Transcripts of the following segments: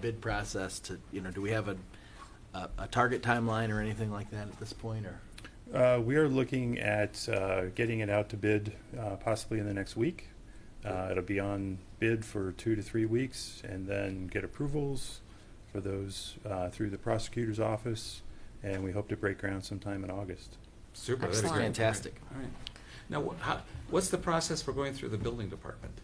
bid process to, you know, do we have a, a, a target timeline or anything like that at this point, or? Uh, we are looking at uh, getting it out to bid uh, possibly in the next week. Uh, it'll be on bid for two to three weeks and then get approvals for those uh, through the prosecutor's office. And we hope to break ground sometime in August. Super. that'd be Excellent. great. Fantastic. All right. Now, wha- how, what's the process for going through the building department?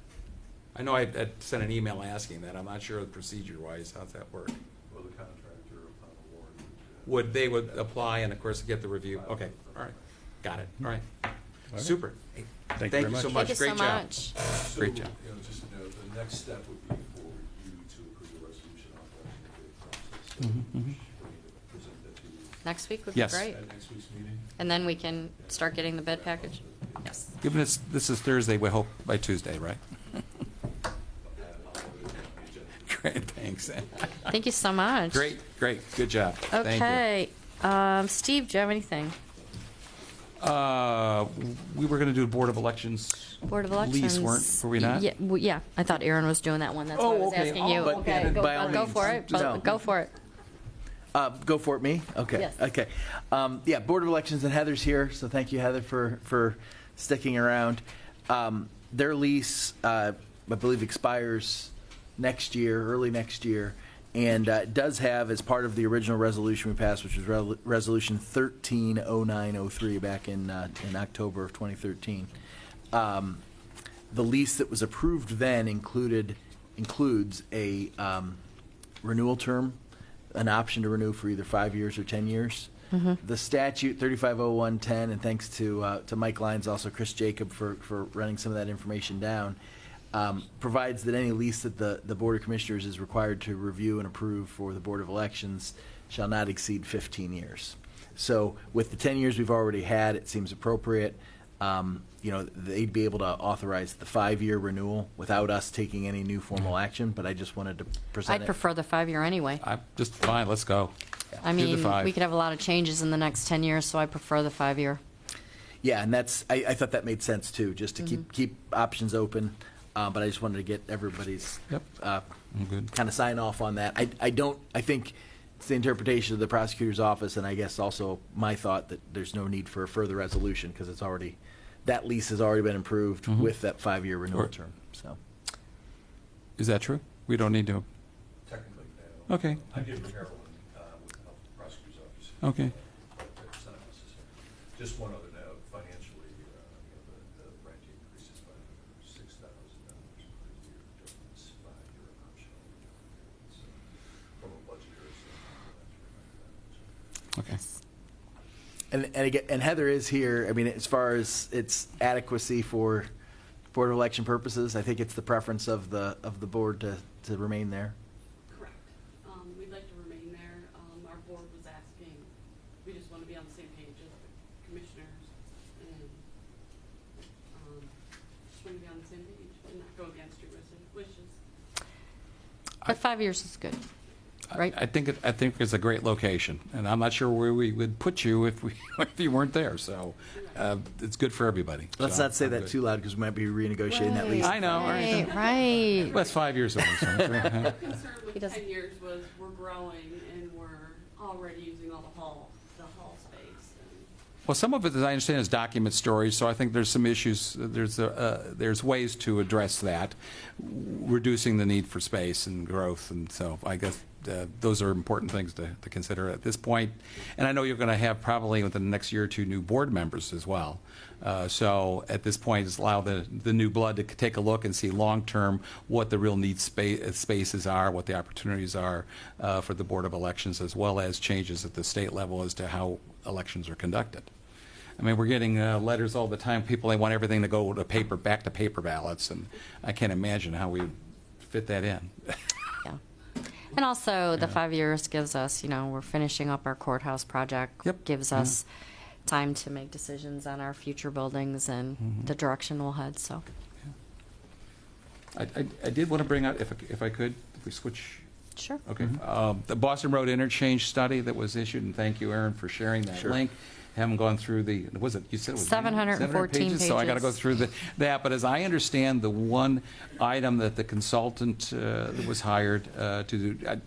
I know I, I sent an email asking that. I'm not sure procedure-wise, how's that work? Well, the contractor upon award uh, would. Would, they would apply and of course get the review? Okay, all right. Got it, all right. right. Super. Hey, Thank you very so much. much. Thank you so Great job. much. So, Great job. You know, just to note, the next step would be for you to approve the resolution authorizing the bid process. So Mhm, we mhm. should Present that to you Mm-hmm, Next week would be Yes. great. at next week's meeting. And then we can start getting the bid package. Yes. Given this, this is Thursday, we hope by Tuesday, right? And I'll, uh, agenda. Great, thanks. Thank you so much. Great, great, good job. Thank you. Okay. Um, Steve, do you have anything? Uh, we were gonna do a Board of Elections. Board of Elections. Lease, weren't, were we not? Yeah, well, yeah. I thought Aaron was doing that one. That's why I Oh, was okay. asking Oh, you. but then Go- by all Go means. for it. No. Bo- Go for it. Uh, go for it, me? Okay. Yes. Okay. Um, yeah, Board of Elections and Heather's here, so thank you, Heather, for, for sticking around. Um, their lease, uh, I believe expires next year, early next year, and, uh, does have, as part of the original resolution we passed, which was Rel- Resolution thirteen oh nine oh three back in, uh, in October of twenty thirteen. Um, the lease that was approved then included, includes a, um, renewal term, an option to renew for either five years or 10 years. Mm-hmm. The statute 350110, and thanks to, uh, to Mike Lyons, also Chris Jacob for, for running some of that information down, um, provides that any lease that the, the Board of Commissioners is required to review and approve for the Board of Elections shall not exceed 15 years. So with the 10 years we've already had, it seems appropriate. Um, You know, they'd be able to authorize the five-year renewal without us taking any new formal action, but I just wanted to present it. Mm-hmm. I'd prefer the five-year anyway. I'm just fine, let's go. I Do the mean, five. we could have a lot of changes in the next 10 years, so I prefer the five-year. Yeah, and that's, I, I thought that made sense too, just to keep, keep options open, uh, but I just wanted to get everybody's Yep. uh, I'm good. kind of sign off on that. I, I don't, I think it's the interpretation of the prosecutor's office, and I guess also my thought that there's no need for a further resolution, because it's already, that lease has already been approved with that five-year renewal Or- term, so. Is that true? We don't need to, Technically, no. Okay. I did Carolyn, uh, with the help of the prosecutor's office. Okay. But it's not necessary. Just one other note, financially, uh, you know, the, the rent increases by six thousand dollars per year during this five-year optional. period. So From a budgetary standpoint, that's right. okay. And, and again, and Heather is here. I mean, as far as its adequacy for board of election purposes, I think it's the preference of the, of the board to, to remain there. Correct. Um, we'd like to remain there. Um, our board was asking, we just want to be on the same page as the commissioners and, um, just want to be on the same page and not go against your wishes- wishes. I- But five years is good. I- Right. I think, it- I think it's a great location, and I'm not sure where we would put you if we, if you weren't there, so uh, it's good for everybody. Let's so not say I'm that good. too loud because we might be renegotiating that lease. I know, right. Right, right. Well, That's five years away, so, yeah. Our concern He with doesn't- ten years was we're growing and we're already using all the hall, the hall space. and- Well, some of it, as I understand, is document storage, so I think there's some issues, there's, uh, uh, there's ways to address that, reducing the need for space and growth, and so I guess uh, those are important things to to consider at this point. And I know you're going to have probably within the next year or two new board members as well. Uh, So at this point, just allow the, the new blood to take a look and see long-term what the real need spa- uh, spaces are, what the opportunities are uh, for the Board of Elections, as well as changes at the state level as to how elections are conducted. I mean, we're getting uh, letters all the time, people, they want everything to go to paper, back to paper ballots, and I can't imagine how we fit that in. Yeah. And also, the five years gives us, you know, we're finishing up our courthouse project. Yep. Gives Mm-hmm. Yeah. us time to make decisions on our future buildings Mm-hmm. and the direction we'll head, so. I, I- I did want to bring out, if, I- if I could, if we switch Sure. Okay. Um, The Boston Road interchange study that was issued, and thank you, Aaron, for sharing that Sure. link. haven't gone through the, was it, you said it was? 714 700 So I got to go pages. through the, that, but as I understand, the one item that the consultant uh, that was hired uh, to do, I-